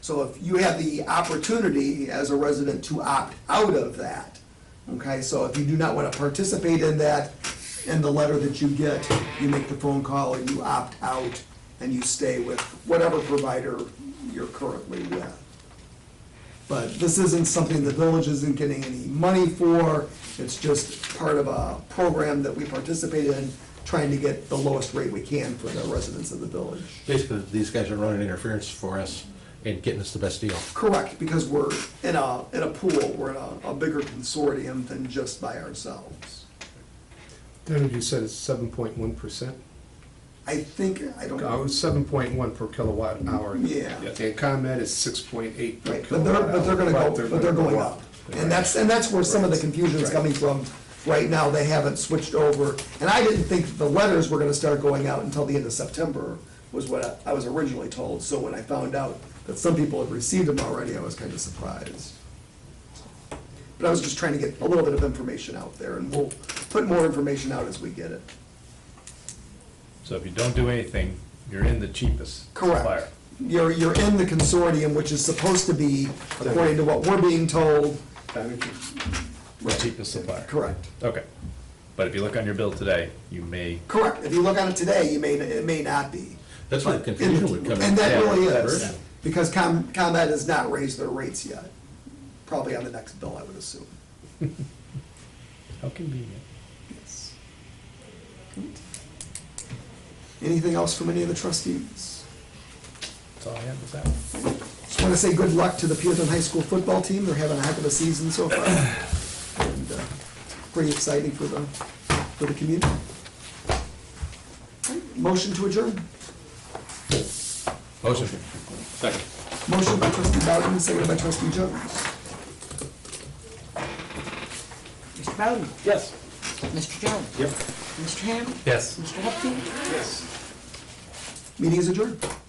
So if you have the opportunity as a resident to opt out of that, okay, so if you do not want to participate in that, in the letter that you get, you make the phone call and you opt out and you stay with whatever provider you're currently with. But this isn't something the village isn't getting any money for, it's just part of a program that we participate in, trying to get the lowest rate we can for the residents of the village. Basically, these guys are running interference for us and getting us the best deal. Correct, because we're in a, in a pool, we're in a, a bigger consortium than just by ourselves. Then you said it's seven point one percent? I think, I don't Oh, know, it's seven point one per kilowatt hour. Yeah. And ComEd is six point eight per right, but they're, kilowatt hour. but they're gonna go, but they're going up. And that's, and that's where some of the confusion's Right. coming from right now, they haven't switched over. And I didn't think the letters were gonna start going out until the end of September, was what I I was originally told. So when I found out that some people had received them already, I was kinda surprised. But I was just trying to get a little bit of information out there, and we'll put more information out as we get it. So if you don't do anything, you're in the cheapest supplier. Correct. You're, you're in the consortium, which is supposed to be, according to what we're being told, The cheapest supplier. correct. Okay. But if you look on your bill today, you may, Correct. If you look on it today, you may, it may not be. That's where the confusion would come in. And that really Yeah, is, that's- because Com, ComEd has not raised their rates yet. Probably on the next bill, I would assume. how convenient. Yes. Good. Anything else from any of the trustees? That's all I have this hour. Just want to say good luck to the Peatone High School football team. They're having a heck of a season so far. and uh, Pretty exciting for the, for the community. Motion to adjourn. Motion. Second. Motion by trustee Bowden, seconded by trustee Jones. Mr. Bowden? Yes. Mr. Jones? Yep. Mr. Ham? Yes. Mr. Hupkey? Meeting is adjourned.